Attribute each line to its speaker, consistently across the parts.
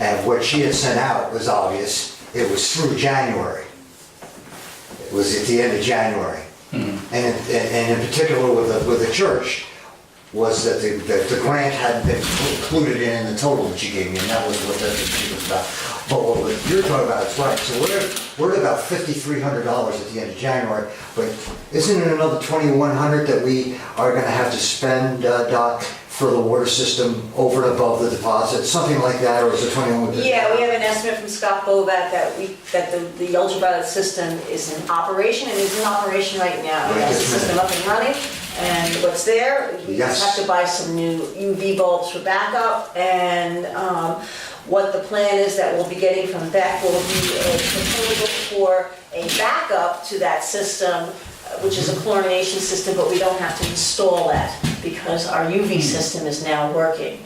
Speaker 1: And what she had sent out was obvious. It was through January. It was at the end of January. And, and- and in particular with the, with the church, was that the, that the grant hadn't been included in the total that you gave me, and that was what that issue was about. But what you're talking about is right, so we're, we're at about fifty-three hundred dollars at the end of January, but isn't it another twenty-one hundred that we are gonna have to spend, uh, Doc, for the water system over and above the deposit, something like that, or is it twenty-one?
Speaker 2: Yeah, we have an estimate from Scott Bovat that we, that the, the ultraviolet system is in operation, and is in operation right now. He
Speaker 1: Right
Speaker 2: has the
Speaker 1: this
Speaker 2: system
Speaker 1: minute.
Speaker 2: up and running, and what's there, we
Speaker 1: Yes.
Speaker 2: just have to buy some new UV bulbs for backup, and, um, what the plan is that we'll be getting from Beck will be a proposal for a backup to that system, which is a chlorination system, but we don't have to install that, because our
Speaker 1: Hmm.
Speaker 2: UV system is now working.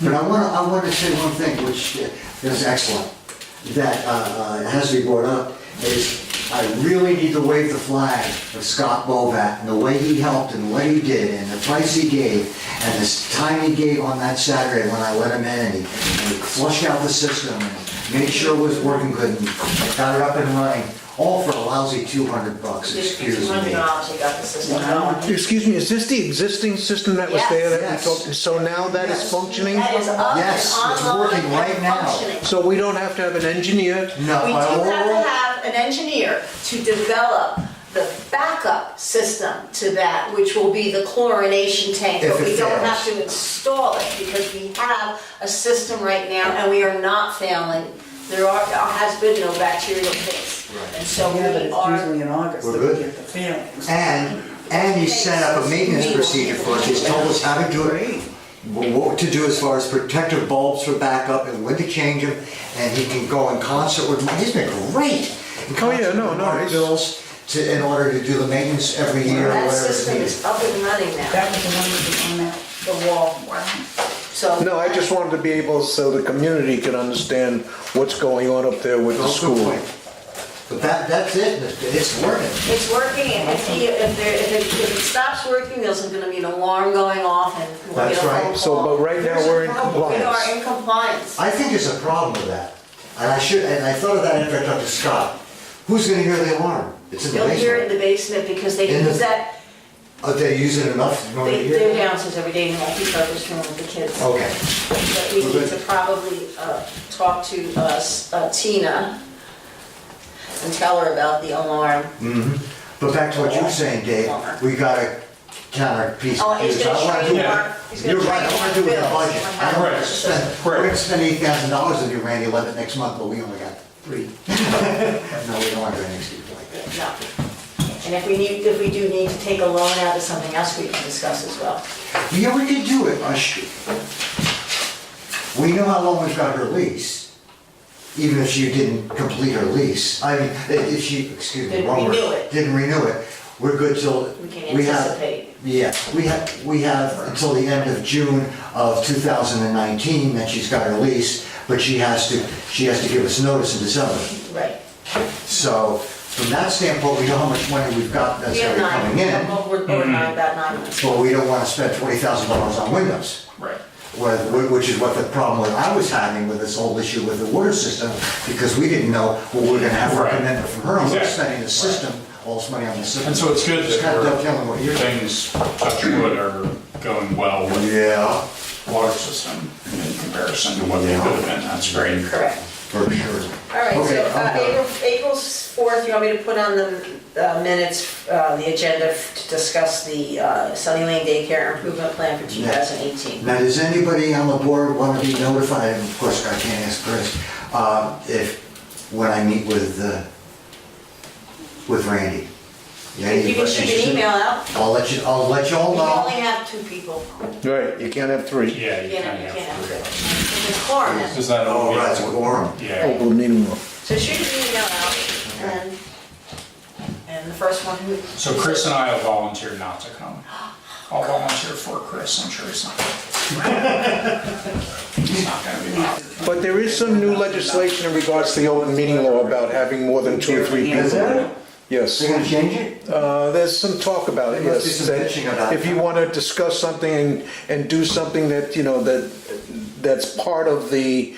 Speaker 1: But I want to, I want to say one thing, which uh, is excellent, that uh, uh, has to be brought up, is I really need to wave the flag of Scott Bovat and the way he helped and what he did and the price he gave and this time he gave on that Saturday when I let him in and he and he flushed out the system and made sure it was working good and got it up and running, all for a lousy 200 bucks, excuse
Speaker 2: Two
Speaker 1: me.
Speaker 2: hundred dollars, you got the system going.
Speaker 3: Excuse me, is this the existing system that was there that we
Speaker 1: Yes.
Speaker 3: talked, so now that is
Speaker 1: Yes.
Speaker 3: functioning?
Speaker 2: That is up
Speaker 1: Yes,
Speaker 2: and
Speaker 1: it's
Speaker 2: online
Speaker 1: working right
Speaker 2: and
Speaker 1: now.
Speaker 2: functioning.
Speaker 3: So we don't have to have an engineer?
Speaker 1: No,
Speaker 2: We
Speaker 1: I
Speaker 2: do have
Speaker 1: will-
Speaker 2: to have an engineer to develop the backup system to that, which will be the chlorination tank.
Speaker 1: If
Speaker 2: But
Speaker 1: it
Speaker 2: we don't
Speaker 1: fails.
Speaker 2: have to install it because we have a system right now and we are not failing. There are, there has been no bacterial case.
Speaker 1: Right.
Speaker 2: And so
Speaker 4: Yeah, but
Speaker 2: we
Speaker 4: it's
Speaker 2: are,
Speaker 4: usually in August
Speaker 1: We're
Speaker 4: that we
Speaker 1: good.
Speaker 4: get the failings.
Speaker 1: And, and he set up a maintenance procedure for us, he's told us how to do it, what to do as far as protective bulbs for backup and when to change them, and he can go in concert with, he's been great. in
Speaker 3: Oh, yeah,
Speaker 1: concert
Speaker 3: no,
Speaker 1: with
Speaker 3: no,
Speaker 1: Mark
Speaker 3: he's-
Speaker 1: Bills to, in order to do the maintenance every year or
Speaker 2: that
Speaker 1: whatever it's
Speaker 2: system
Speaker 1: needed.
Speaker 2: is up and running now,
Speaker 4: That was the one that
Speaker 2: the wall, so.
Speaker 3: No, I just wanted to be able, so the community could understand what's going on up there with the
Speaker 1: Oh, good
Speaker 3: school.
Speaker 1: point. But that, that's it, it's working.
Speaker 2: It's working, and if he, if there, if it, if it stops working, there's gonna be an alarm going off and we'll get
Speaker 1: That's
Speaker 2: a phone
Speaker 1: right.
Speaker 2: call.
Speaker 3: So, but right now, we're in
Speaker 2: We
Speaker 3: compliance.
Speaker 2: are in compliance.
Speaker 1: I think there's a problem with that, and I should, and I thought of that after I talked to Scott. Who's gonna hear the alarm? It's in the
Speaker 2: You'll
Speaker 1: basement.
Speaker 2: hear it in the basement because they
Speaker 1: In the-
Speaker 2: use that,
Speaker 1: Oh, they use it enough, you want to
Speaker 2: they,
Speaker 1: hear?
Speaker 2: they're
Speaker 1: it?
Speaker 2: downstairs every day in the multipurpose room with the kids.
Speaker 1: Okay,
Speaker 2: But we
Speaker 1: we're
Speaker 2: need to
Speaker 1: good.
Speaker 2: probably, uh, talk to, uh, S- uh, Tina and tell her about the alarm.
Speaker 1: but back to what you were saying, Dave, we gotta counter piece.
Speaker 2: Oh, he's
Speaker 1: pieces.
Speaker 2: gonna
Speaker 1: I wanna
Speaker 2: train
Speaker 1: do-
Speaker 2: Mark- he's gonna
Speaker 1: You're right, I
Speaker 2: train
Speaker 1: wanna do it in the
Speaker 2: Mark Bills
Speaker 1: budget.
Speaker 2: on
Speaker 1: I
Speaker 2: how
Speaker 1: don't
Speaker 2: to
Speaker 1: wanna
Speaker 2: use the
Speaker 1: spend, we're gonna spend eight thousand dollars with you, Randy Levitt, next month, but we only got three. No, we don't want to do anything stupid like that.
Speaker 2: No. And if we need, if we do need to take a loan out of something else, we can discuss as well.
Speaker 1: Yeah, we could do it, Ush. We know how long we've got her lease, even if she didn't complete her lease. I mean, if she, excuse me,
Speaker 2: Didn't
Speaker 1: wrong word.
Speaker 2: renew it.
Speaker 1: Didn't renew it. We're good till.
Speaker 2: We can
Speaker 1: have-
Speaker 2: anticipate.
Speaker 1: Yeah, we have, we have until the end of June of 2019 that she's got her lease, but she has to, she has to give us notice in December.
Speaker 2: Right.
Speaker 1: So from that standpoint, we know how much money we've got that's
Speaker 2: We have
Speaker 1: already
Speaker 2: nine,
Speaker 1: coming in,
Speaker 2: we're, we're nine, about nine months.
Speaker 1: but we don't want to spend $20,000 on windows.
Speaker 5: Right.
Speaker 1: Well, wh- which is what the problem that I was having with this whole issue with the water system, because we didn't know what we were gonna have for
Speaker 5: Right.
Speaker 1: commitment from her, and we're
Speaker 5: Exactly.
Speaker 1: spending the system, all this money on the system.
Speaker 5: And so it's good
Speaker 1: It's kind of dovetailing
Speaker 5: that
Speaker 1: what
Speaker 5: we're,
Speaker 1: you're doing.
Speaker 5: things, touch wood, are going well with
Speaker 1: Yeah,
Speaker 5: the water system in comparison to what they
Speaker 1: Yeah.
Speaker 5: could have been. That's great.
Speaker 2: Correct.
Speaker 1: for sure.
Speaker 2: All right, so
Speaker 1: Okay, um,
Speaker 2: uh,
Speaker 1: I'm done.
Speaker 2: April, April 4th, you want me to put on the uh, minutes, uh, the agenda f- to discuss the uh, Sunny Lane Daycare Improvement Plan for 2018?
Speaker 1: Now, does anybody on the board want to be notified, and of course, I can't ask Chris, uh, if, when I meet with, uh, with Randy? Yeah,
Speaker 2: If you can
Speaker 1: anybody
Speaker 2: shoot
Speaker 1: interested?
Speaker 2: an email out,
Speaker 1: I'll let you, I'll let you all
Speaker 2: we
Speaker 1: know.
Speaker 2: only have two people.
Speaker 3: Right, you can't have three.
Speaker 5: Yeah, you
Speaker 2: You
Speaker 5: kind
Speaker 2: can't,
Speaker 5: of
Speaker 2: you can't have
Speaker 5: have to.
Speaker 2: three. It's a quorum.
Speaker 5: Is that all?
Speaker 1: Oh,
Speaker 5: we
Speaker 1: right,
Speaker 5: have
Speaker 1: it's a
Speaker 5: to-
Speaker 1: quorum.
Speaker 3: Oh,
Speaker 5: Yeah.
Speaker 3: we'll need more.
Speaker 2: So shoot an email out, and, and the first one who...
Speaker 5: So Chris and I will volunteer not to come. I'll volunteer for Chris, I'm sure he's not. He's not gonna be bothered.
Speaker 3: But there is some new legislation in regards to the open meeting law about having more than two or three
Speaker 1: Is
Speaker 3: people.
Speaker 1: that,
Speaker 3: Yes.
Speaker 1: they're gonna change it?
Speaker 3: Uh, there's some talk about it,
Speaker 1: There must be
Speaker 3: yes.
Speaker 1: some
Speaker 3: that
Speaker 1: bitching about
Speaker 3: If you
Speaker 1: that.
Speaker 3: want to discuss something and, and do something that, you know, that, that's part of the